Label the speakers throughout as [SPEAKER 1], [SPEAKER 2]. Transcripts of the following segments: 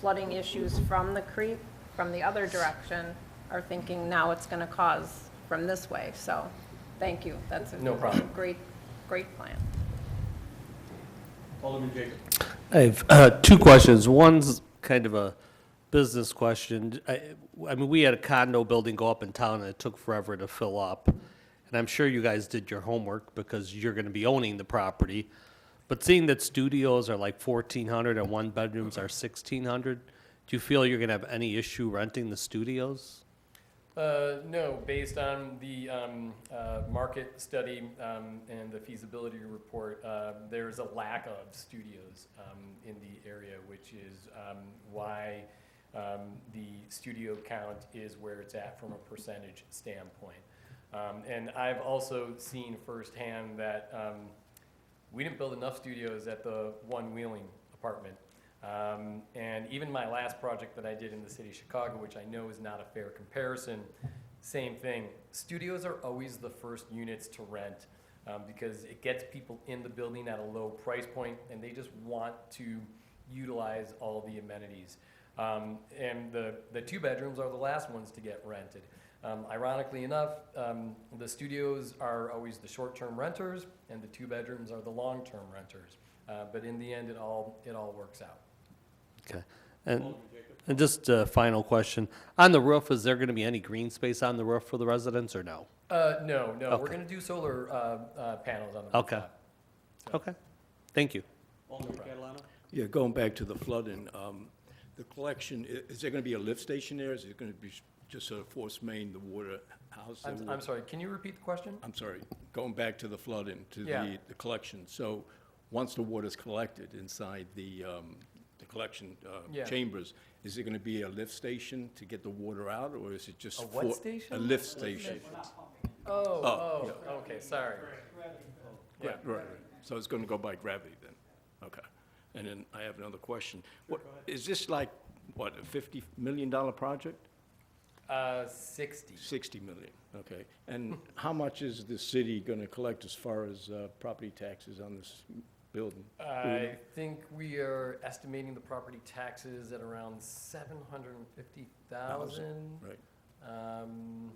[SPEAKER 1] flooding issues from the creek, from the other direction, are thinking now it's going to cause from this way. So, thank you. That's a
[SPEAKER 2] No problem.
[SPEAKER 1] great, great plan.
[SPEAKER 2] Alderman Jacob.
[SPEAKER 3] I have uh, two questions. One's kind of a business question. I I mean, we had a condo building go up in town, and it took forever to fill up. And I'm sure you guys did your homework because you're going to be owning the property. But seeing that studios are like 1,400 and one-bedrooms are 1,600, do you feel you're going to have any issue renting the studios?
[SPEAKER 2] Uh, no, based on the, um, uh, market study, um, and the feasibility report, uh, there's a lack of studios, um, in the area, which is, um, why, um, the studio count is where it's at from a percentage standpoint. Um, and I've also seen firsthand that, um, we didn't build enough studios at the one wheeling apartment. Um, and even my last project that I did in the city of Chicago, which I know is not a fair comparison, same thing. Studios are always the first units to rent um, because it gets people in the building at a low price point and they just want to utilize all the amenities. Um, and the, the two bedrooms are the last ones to get rented. Um, ironically enough, um, the studios are always the short term renters, and the two bedrooms are the long term renters. Uh, but in the end, it all, it all works out.
[SPEAKER 3] Okay. And and just a final question. On the roof, is there going to be any green space on the roof for the residents, or no?
[SPEAKER 2] Uh, no, no, we're
[SPEAKER 3] Okay.
[SPEAKER 2] going to do solar uh, uh, panels on the
[SPEAKER 3] Okay.
[SPEAKER 2] rooftop. So-
[SPEAKER 3] Okay. Thank you.
[SPEAKER 4] Yeah, going back to the flooding, um, the collection, i- is there going to be a lift station there? Is it going to be s- just sort of force main, the water house?
[SPEAKER 2] I'm, I'm sorry, can you repeat the question?
[SPEAKER 4] I'm sorry, going back to the flooding, to
[SPEAKER 2] Yeah.
[SPEAKER 4] the, the collection. So once the water's collected inside the, um, the collection uh,
[SPEAKER 2] Yeah.
[SPEAKER 4] chambers, is there going to be a lift station to get the water out, or is it just?
[SPEAKER 2] A what
[SPEAKER 4] for-
[SPEAKER 2] station?
[SPEAKER 4] A lift station.
[SPEAKER 2] Oh, oh, okay, sorry. Yeah.
[SPEAKER 4] Right, right. So it's going to go by gravity then? Okay. And then I have another question. What, is this like, what, a $50 million project?
[SPEAKER 2] Uh, 60.
[SPEAKER 4] 60 million, okay. And how much is the city going to collect as far as uh, property taxes on this building?
[SPEAKER 2] I think we are estimating the property taxes at around 750,000.
[SPEAKER 4] Right.
[SPEAKER 2] Um,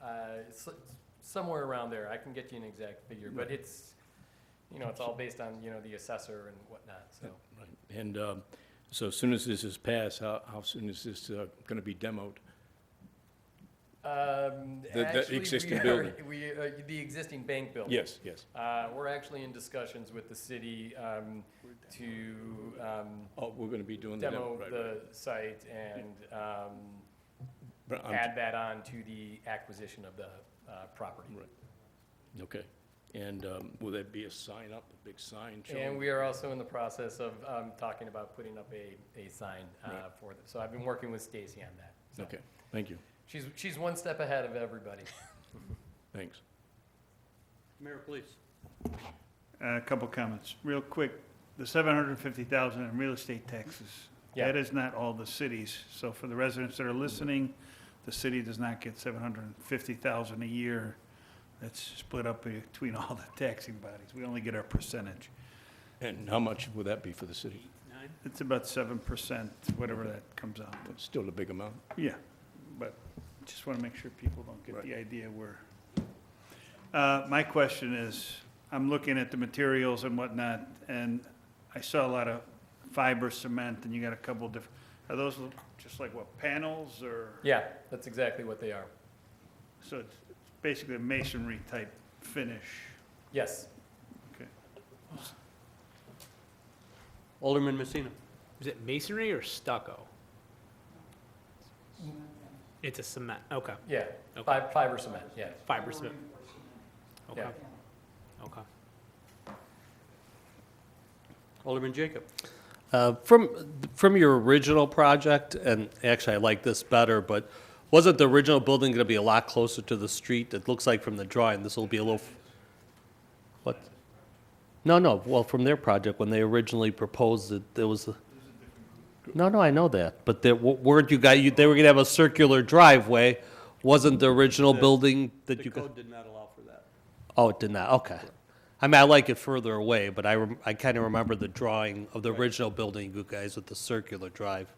[SPEAKER 2] uh, it's s- somewhere around there. I can get you an exact figure, but it's, you know, it's all based on, you know, the assessor and whatnot, so.
[SPEAKER 4] Right. And um, so as soon as this is passed, how how soon is this going to be demoed?
[SPEAKER 2] Um,
[SPEAKER 4] The- the
[SPEAKER 2] actually, we
[SPEAKER 4] existing
[SPEAKER 2] are-
[SPEAKER 4] building.
[SPEAKER 2] We, uh, the existing bank building.
[SPEAKER 4] Yes, yes.
[SPEAKER 2] Uh, we're actually in discussions with the city, um, to, um,
[SPEAKER 4] Oh, we're going to be doing the
[SPEAKER 2] demo
[SPEAKER 4] demo, right, right.
[SPEAKER 2] the site and, um,
[SPEAKER 4] But I'm-
[SPEAKER 2] add that on to the acquisition of the, uh, property.
[SPEAKER 4] Right. Okay. And um, will there be a sign up, a big sign showing?
[SPEAKER 2] And we are also in the process of um, talking about putting up a, a sign uh,
[SPEAKER 4] Right.
[SPEAKER 2] for them. So I've been working with Stacy on that. So
[SPEAKER 4] Okay, thank you,
[SPEAKER 2] She's, she's one step ahead of everybody.
[SPEAKER 4] thanks.
[SPEAKER 5] Mayor, please.
[SPEAKER 6] Uh, A couple comments, real quick. The seven hundred and fifty thousand in real estate taxes,
[SPEAKER 2] Yeah.
[SPEAKER 6] that is not all the cities. So for the residents that are listening, the city does not get seven hundred and fifty thousand a year. That's split up between all the taxing bodies. We only get our percentage.
[SPEAKER 4] And how much would that be for the city?
[SPEAKER 5] Nine.
[SPEAKER 6] It's about seven percent, whatever that comes out. to.
[SPEAKER 4] Still a big amount.
[SPEAKER 6] Yeah, but just want to make sure people don't get the idea where. Uh, My question is, I'm looking at the materials and whatnot, and I saw a lot of fiber cement, and you got a couple different, are those l- just like what, panels or?
[SPEAKER 2] Yeah, that's exactly what they are.
[SPEAKER 6] So it's it's basically a masonry type finish.
[SPEAKER 2] Yes.
[SPEAKER 5] Alderman Messina. Is it masonry or stucco? It's a cement, okay.
[SPEAKER 2] Yeah.
[SPEAKER 5] Okay.
[SPEAKER 2] Fi- Fiber cement, yeah.
[SPEAKER 5] Fiber cement. Okay,
[SPEAKER 2] Yeah.
[SPEAKER 5] okay. Alderman Jacob.
[SPEAKER 3] Uh, From, from your original project, and actually I like this better, but wasn't the original building going to be a lot closer to the street? It looks like from the drawing, this will be a little, f- what? No, no, well, from their project, when they originally proposed it, there was, a- no, no, I know that, but there w- weren't you guys, they were going to have a circular driveway. Wasn't the original building that
[SPEAKER 5] The
[SPEAKER 3] you? got-
[SPEAKER 5] code did not allow for that.
[SPEAKER 3] Oh, it did not, okay. I mean, I like it further away, but I, rem- I kind of remember the drawing of the original building, you guys, with the circular drive.